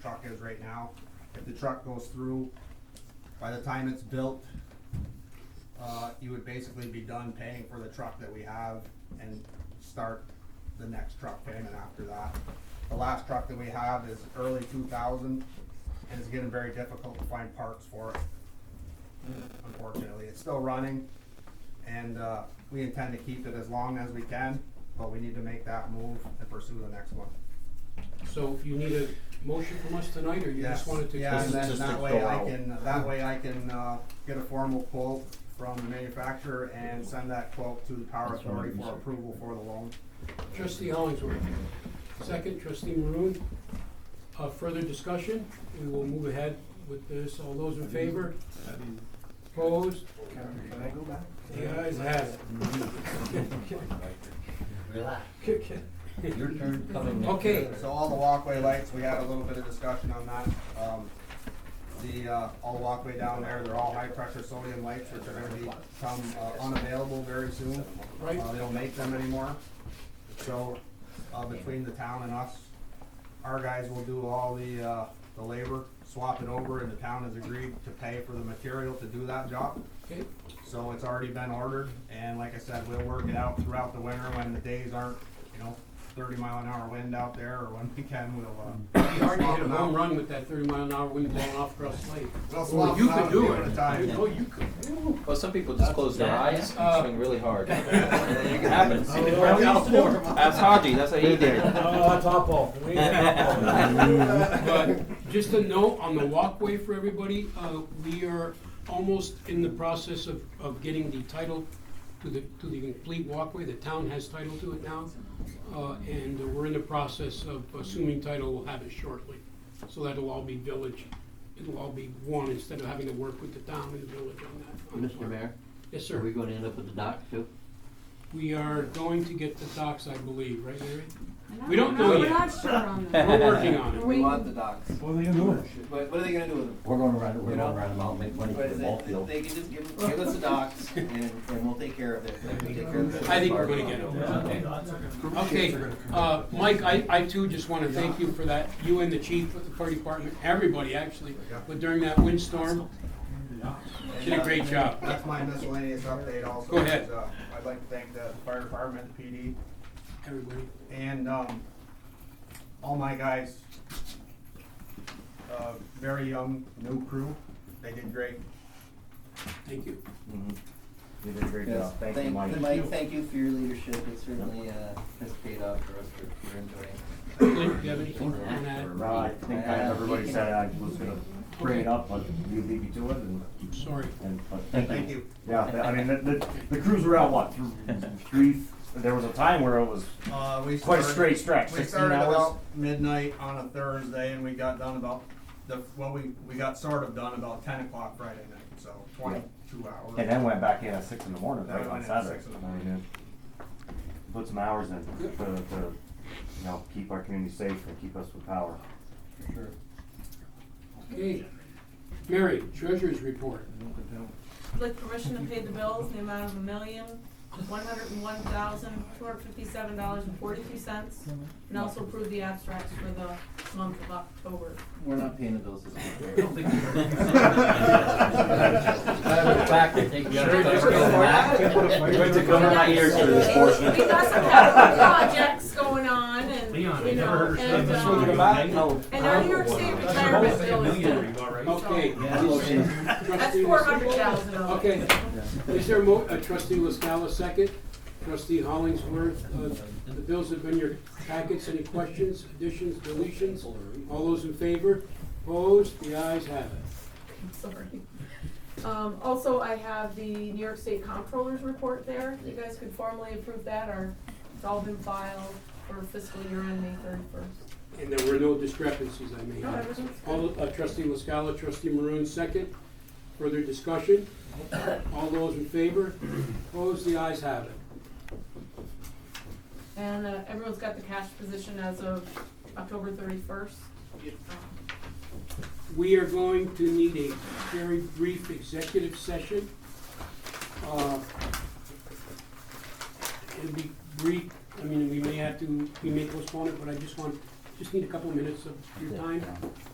is right now. If the truck goes through, by the time it's built, uh, you would basically be done paying for the truck that we have and start the next truck payment after that. The last truck that we have is early two thousand, and it's getting very difficult to find parts for it. Unfortunately, it's still running, and, uh, we intend to keep it as long as we can, but we need to make that move and pursue the next one. So you need a motion from us tonight, or you Yes, just wanted to? yeah, and Just- then just that to way go I out. can, that way I can, uh, get a formal quote from the manufacturer and send that quote to the power That's what I authority was for gonna say. approval for the loan. Trustee Hollingsworth, second, trustee Maroon. Uh, further discussion, we will move ahead with this, all those in favor? Opposed? Can I go back? The ayes have it. Relax, Okay, okay. your turn coming next. Okay, So all the walkway lights, we had a little bit of discussion on that. Um, the, uh, all the walkway down there, they're all high pressure sodium lights, which are gonna become uh, unavailable very soon. Right. Uh, they don't make them anymore. So, uh, between the town and us, our guys will do all the, uh, the labor, swap it over, and the town has agreed to pay for the material to do that job. okay, So it's already been ordered, and like I said, we'll work it out throughout the winter when the days aren't, you know, thirty mile an hour wind out there, or when we can, we'll, uh, you already hit a home run with that thirty mile an hour wind blowing off Cross Lake. we'll Well, swap you it out could and do give it it. a time. You- Oh, you could. Well, some people just close their eyes Uh, and swing really hard. It happens. I used to do it. That's Haji, that's how he did it. Oh, top off. We ain't top off. But just a note on the walkway for everybody, uh, we are almost in the process of, of getting the title to the, to the complete walkway. The town has title to it now. Uh, and we're in the process of assuming title, we'll have it shortly. So that'll all be village, it'll all be one instead of having to work with the town and the village on that. on that Mr. one. Mayor, Yes, are we sir. gonna end up with the dock too? We are going to get the docks, I believe, right, Larry? We don't know We're yet. not sure on that. We're working on it. We- the docs. What are they gonna do? But what are they gonna do with them? We're gonna run, You we're know? gonna run them out, make money for But the is ball it- field. They can just give, give us the docs and, and we'll take care of it. Like, we'll take care of the- I think we're gonna get over it. Okay, uh, Mike, I, I too just wanna thank you for that, you and the chief of the fire department, everybody actually, but during that windstorm, did a great job. That's my miscellaneous update also. Go ahead. is, uh, I'd like to thank the fire department, the PD, Everybody, and, um, all my guys, uh, very young, new crew, they did great. thank you. You did a great Yes, job. Thank, Mike, thank you for your leadership. It certainly, uh, has paid off for us. We're, we're enjoying. Clint, you have anything on that? Well, I think I- Uh, everybody said I was gonna bring it up, but you beat me to it, and, Sorry, and, but, Thank you. yeah, th- I mean, the, the, the crews were out, what, through, three, there was a time where it was Uh, we quite started- a straight stretch, We sixteen started hours. about midnight on a Thursday and we got done about the, well, we, we got sort of done about ten o'clock Friday night, so twenty-two hours. And then went back in at six in the morning, Then right we on went in at Saturday. six in the I mean, morning. it- Put some hours in to, to, you know, keep our community safe and keep us with power. okay. Mary, treasurer's report, With permission to pay the bills in the amount of a million, one hundred and one thousand, two hundred fifty-seven dollars and forty-two cents. And also approve the abstracts for the month of October. We're not paying the bills this month. Matter of fact, I think we ought to Sure, just go cover Went to that. cover my ears for this portion. We got some capital projects going on and, you Leon, I never know, heard her and, say um, Oh. and our New York State retirement bill is due. okay. That's Trustee four Lis- hundred thousand dollars. Okay, is there a mo, uh, trustee Liscala second, trustee Hollingsworth, uh, the bills have been your packets, any questions, additions, deletions? All those in favor, opposed, the ayes have it. sorry. Um, also, I have the New York State Comptroller's report there, you guys could formally approve that, or it's all been filed for fiscal year end May thirty-first. And there were no discrepancies I may No, have. everything's good. All, uh, trustee Liscala, trustee Maroon second, further discussion? All those in favor, opposed, the ayes have it. And, uh, everyone's got the cash position as of October thirty-first. we are going to need a very brief executive session. Uh, It'll be brief, I mean, we may have to, we may postpone it, but I just want, just need a couple of minutes of your time.